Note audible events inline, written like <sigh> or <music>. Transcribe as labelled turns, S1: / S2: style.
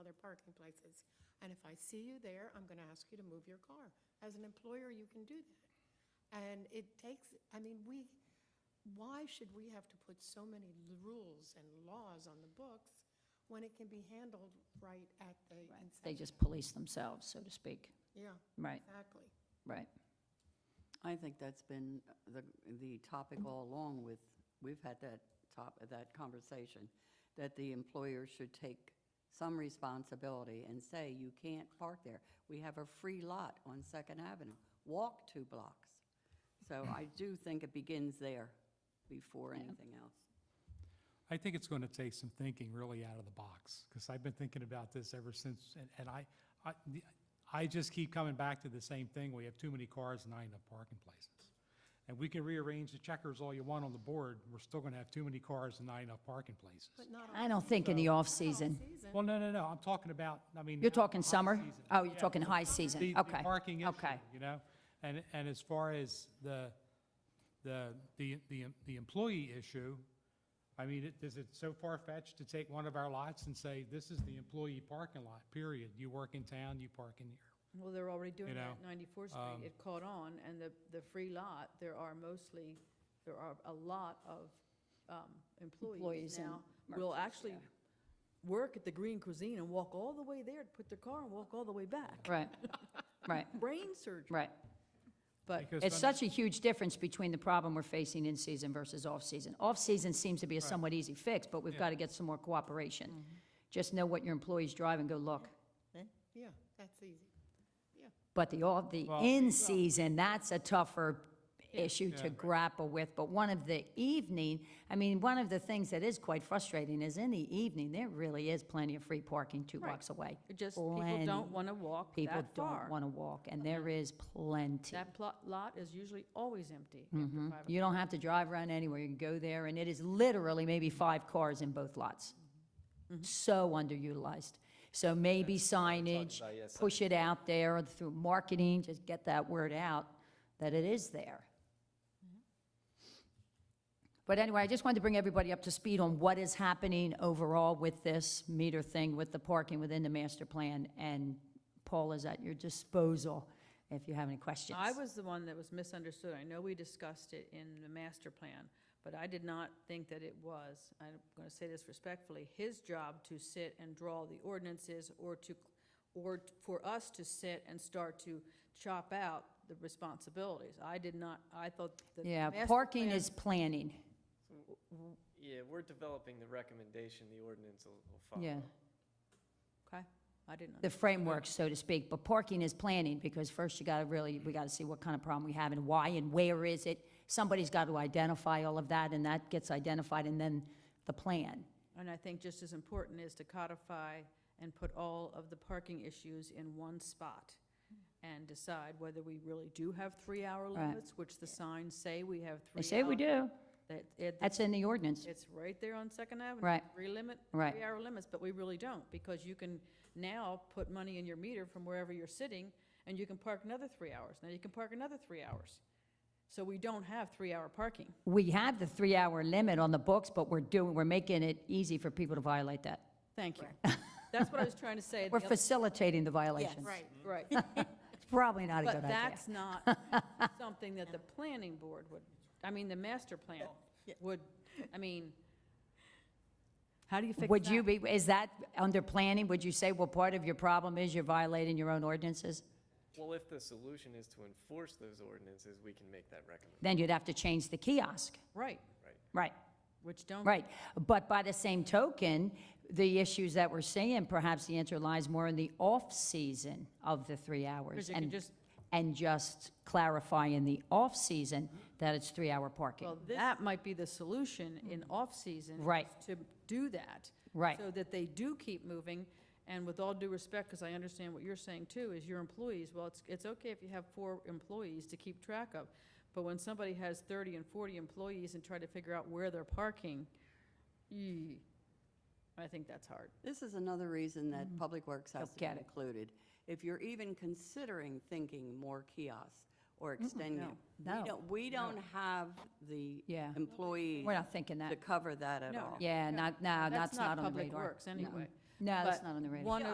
S1: parking places. And if I see you there, I'm going to ask you to move your car. As an employer, you can do that. And it takes, I mean, we, why should we have to put so many l- rules and laws on the books when it can be handled right at the
S2: They
S1: inception?
S2: just police themselves, so to speak.
S1: Yeah,
S2: Right,
S1: exactly.
S2: right.
S3: I think that's been the, the topic all along with, we've had that top, that conversation, that the employer should take some responsibility and say, you can't park there. We have a free lot on Second Avenue, walk two blocks. So I do think it begins there before anything else.
S4: I think it's going to take some thinking really out of the box, because I've been thinking about this ever since, and, and I, I, the- I just keep coming back to the same thing, we have too many cars and not enough parking places. And we can rearrange the checkers all you want on the board, we're still going to have too many cars and not enough parking places.
S1: But not all.
S2: I don't think in the
S1: Not all
S2: off-season.
S1: season.
S4: Well, no, no, no, I'm talking about, I mean.
S2: You're talking
S4: high
S2: summer?
S4: season.
S2: Oh, you're
S4: Yeah.
S2: talking high
S4: The-
S2: season,
S4: the
S2: okay.
S4: Parking issue,
S2: Okay,
S4: you know? And, and as far as the, the, the, the the employee issue, I mean, it- is it so far-fetched to take one of our lots and say, this is the employee parking lot, period? You work in town, you park in here.
S5: Well, they're already doing
S4: You
S5: that
S4: know, um,
S5: at 94th Street. It caught on, and the, the free lot, there are mostly, there are a lot of um,
S2: Employees
S5: employees
S2: and
S5: now. Will
S2: merchants,
S5: actually
S2: yeah.
S5: work at the Green Cuisine and walk all the way there to put their car and walk all the way back.
S2: right, right,
S5: Brain surgery.
S2: right.
S5: But
S4: Because
S2: It's
S4: some-
S2: such a huge difference between the problem we're facing in season versus off-season. Off-season seems to be a somewhat easy fix, but we've
S4: Yeah. Mm-hmm.
S2: got to get some more cooperation. Just know what your employees drive and go look.
S1: Yeah, that's easy. Yeah.
S2: But the, all, the
S4: Well-
S2: in-season, that's a tougher issue
S4: Yeah.
S2: to grapple with. But one of the evening, I mean, one of the things that is quite frustrating is in the evening, there really is plenty of free parking two blocks away.
S5: It Just people
S2: Plenty.
S5: don't want to walk
S2: People
S5: that
S2: don't
S5: far.
S2: want to walk, and there is plenty.
S5: That plot, lot is usually always empty after five
S2: You don't have to drive around anywhere, you can go there, and it is literally maybe five cars in both lots. So underutilized. So maybe signage,
S6: about, yes,
S2: push it out there or through marketing, just get that word out that it is there. But anyway, I just wanted to bring everybody up to speed on what is happening overall with this meter thing, with the parking within the master plan, and Paul is at your disposal if you have any questions.
S5: I was the one that was misunderstood. I know we discussed it in the master plan, but I did not think that it was, I'm going to say this respectfully, his job to sit and draw the ordinances or to, or for us to sit and start to chop out the responsibilities. I did not, I thought that. the
S2: Yeah,
S5: master
S2: parking
S5: plan-
S2: is planning.
S6: Yeah, we're developing the recommendation, the ordinance will will follow.
S2: Yeah,
S5: Okay, I didn't.
S2: the framework, so to speak, but parking is planning, because first you gotta really, we gotta see what kind of problem we have and why and where is it. Somebody's gotta identify all of that, and that gets identified, and then the plan.
S5: And I think just as important is to codify and put all of the parking issues in one spot and decide whether we really do have three-hour
S2: Right.
S5: limits, which the signs say we have
S2: They
S5: three.
S2: say we
S5: hour-
S2: do,
S5: That, it,
S2: that's in the ordinance,
S5: it's right there on Second Avenue.
S2: Right.
S5: Three limit,
S2: Right.
S5: three-hour limits, but we really don't, because you can now put money in your meter from wherever you're sitting, and you can park another three hours. Now you can park another three hours. So we don't have three-hour parking.
S2: we have the three-hour limit on the books, but we're doing, we're making it easy for people to violate that.
S5: Thank you. That's what
S2: <laughs>
S5: I was trying to say.
S2: We're
S5: The other-
S2: facilitating the violations.
S1: Right.
S5: Right.
S2: <laughs> It's probably not a good
S5: But
S2: idea.
S5: that's not something that the planning board would, I mean, the master plan would, I mean, how do you fix that?
S2: Would you be, is that under planning, would you say, well, part of your problem is you're violating your own ordinances?
S6: Well, if the solution is to enforce those ordinances, we can make that recommendation,
S2: Then you'd have to change the kiosk,
S5: Right,
S6: right?
S2: right?
S5: which don't.
S2: Right, but by the same token, the issues that we're seeing, perhaps the answer lies more in the off-season of the three hours.
S5: Because you can
S2: and-
S5: just-
S2: And just clarify in the off-season that it's three-hour
S5: Mm-hmm. Well,
S2: parking.
S5: that might be the solution in off-season. is
S2: Mm-hmm. Right.
S5: To do that.
S2: Right.
S5: So that they do keep moving, and with all due respect, because I understand what you're saying too, is your employees, well, it's, it's okay if you have four employees to keep track of, but when somebody has 30 and 40 employees and try to figure out where they're parking, ee, I think that's hard.
S3: This is another reason
S2: Mm-hmm.
S3: that Public Works has to be
S2: Get it.
S3: included. If you're even considering thinking more kiosks or extending them. we
S2: no,
S3: don't- We don't have the
S2: Yeah.
S3: employees
S2: We're not thinking
S3: to
S2: that.
S3: cover that at
S5: No,
S3: all.
S2: Yeah, not, no, that's
S5: That's
S2: not on the radar.
S5: Public Works,
S2: No.
S5: anyway.
S2: No, that's
S5: But
S2: not on the radar.
S5: One